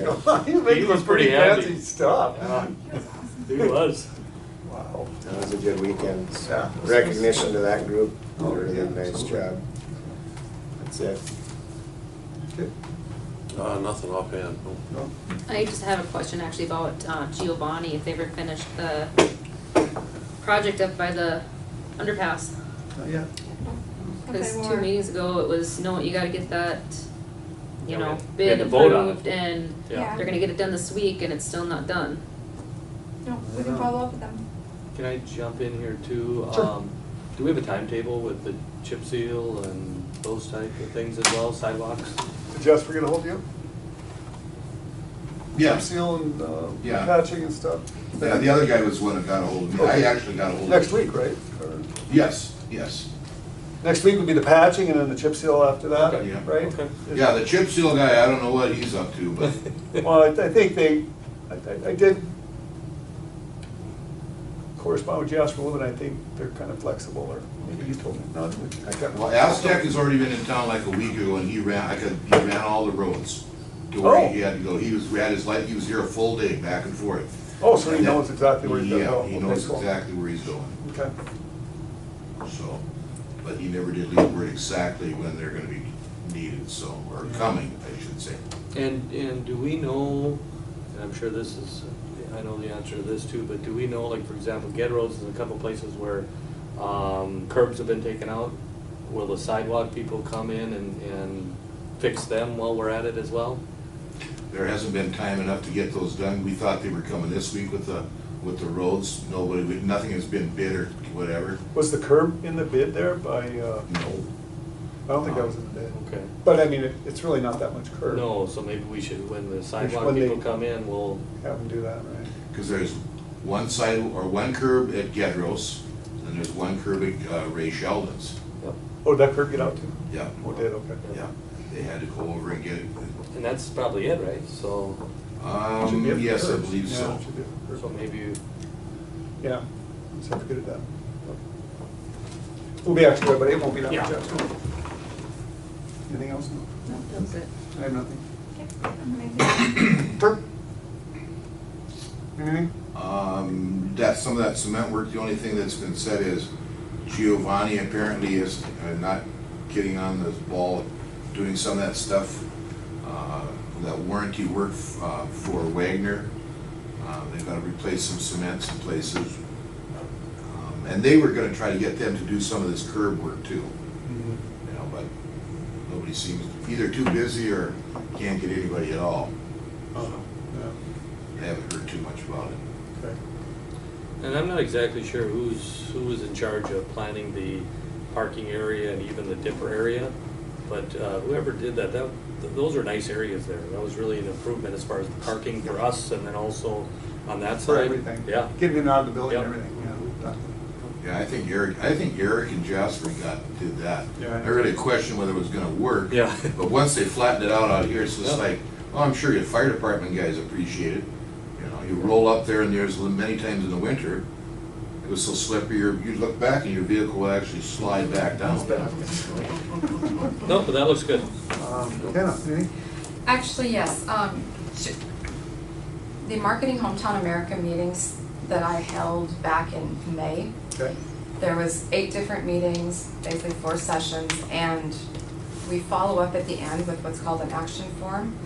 You make He some was pretty pretty fancy happy. stuff. Yeah. He was. Wow. That was a good weekend. Yeah. Recognition to that group, did a Oh, yeah, really nice absolutely. job. That's it. Okay. Uh, nothing offhand, no. No. I just have a question actually about uh, Giovanni, if they ever finished the project up by the underpass. Not yet. Because Okay, two Laura. meetings ago, it was, no, you gotta get that, Yeah, you we know, had- we had bid to vote on it. approved and Yeah. they're gonna get it done this week and it's still not done. No, we can follow up with them. Can I jump in here too? Sure. Um, Do we have a timetable with the chip seal and those type of things as well, sidewalks? Jasper gonna hold you? Yeah. Seal and, uh, Yeah. patching and stuff? Yeah, the other guy was the one that got ahold of me. I actually got ahold of him. Next week, right? Or- Yes, yes. Next week would be the patching and then the chip seal after that, Okay, yeah. right? Okay. Yeah, the chip seal guy, I don't know what he's up to, but Well, I- I think they, I- I- I did correspond with Jasper Wood, and I think they're kind of flexible, or maybe he told me, no, I can't. well, Aztec has already been in town like a week ago and he ran, I could, he ran all the roads to Oh. where he had to go. He was, we had his light, he was here a full day back and forth. Oh, so he knows exactly where he's going. Yeah, he knows exactly where he's going, Okay, so. But he never did leave word exactly when they're gonna be needed, so, or coming, I should say. And, and do we know, and I'm sure this is, I know the answer to this too, but do we know, like, for example, Get Roads is a couple places where um, curbs have been taken out? Will the sidewalk people come in and, and fix them while we're at it as well? There hasn't been time enough to get those done. We thought they were coming this week with the, with the roads. Nobody, we- nothing has been bid or whatever. was the curb in the bid there by, uh, No. I don't think that was in the bid, Okay. but I mean, it- it's really not that much curb. No, so maybe we should, when the sidewalk when they- people come in, we'll Have them do that, right? Because there's one side, or one curb at Gedros, and there's one curb at uh, Ray Sheldon's. Oh, did that curb get out too? Yeah. Oh, it did, okay. Yeah, they had to go over and get it. And that's probably it, right? So, Should Um, be up to yes, I curbs. believe Yeah, so. should be up to so curbs. maybe, Yeah, so have to get it done. We'll be after, but it won't be that much Yeah. after. Anything else? No, No, that was it. I have nothing. Okay, amazing. Turk? Anything? Um, that, some of that cement work, the only thing that's been said is Giovanni apparently is uh, not getting on the ball, doing some of that stuff, uh, that warranty work, uh, for Wagner. Uh, they've gotta replace some cement some places. Um, And they were gonna try to get them to do some of this curb work too, you know, but nobody seems, either too busy or can't get anybody at all. Oh, I haven't heard too much about it. no, okay. and I'm not exactly sure who's, who was in charge of planning the parking area and even the dipper area. But uh, whoever did that, that, th- those are nice areas there. That was really an improvement as far as parking for us and then also on that For side. everything. Yeah. Getting it out of the building and Yep. everything, yeah. done. Yeah, I think Eric, I think Eric and Jasper got, did that. Yeah, I I know. really questioned whether it was gonna work. Yeah. But once they flattened it out out here, it's just Yeah. like, oh, I'm sure your fire department guys appreciate it. You know, you roll up there and there's many times in the winter, it was so slippery, you you look back and your vehicle will actually slide back down. No, but that looks good. Um, Kenna, anything? Actually, yes. Um, sh- The Marketing Hometown America meetings that I held back in May, Okay. there was eight different meetings, basically four sessions, and we follow up at the end with what's called an action form,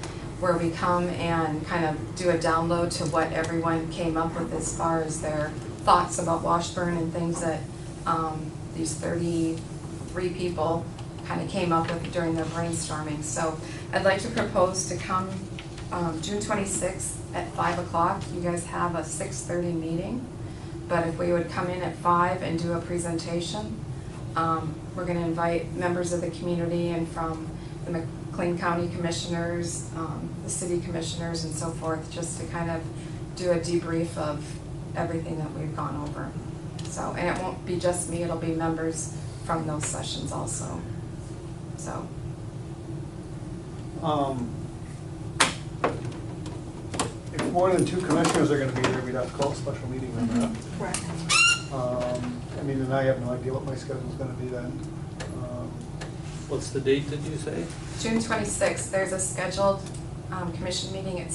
where we come and kind of do a download to what everyone came up with as far as their thoughts about Washburn and things that um, these thirty-three people kind of came up with during their brainstorming. So I'd like to propose to come um, June twenty-sixth at five o'clock. You guys have a six-thirty meeting. But if we would come in at five and do a presentation, um, we're gonna invite members of the community and from the McLean County Commissioners, um, the city commissioners and so forth, just to kind of do a debrief of everything that we've gone over. So, and it won't be just me, it'll be members from those sessions also. So, Um, If more than two commissioners are gonna be there, we'd have to call a special meeting on that. Correct. Um, I mean, and I have no idea what my schedule's gonna be then. Um, What's the date, did you say? June twenty-sixth, there's a scheduled, um, commission meeting at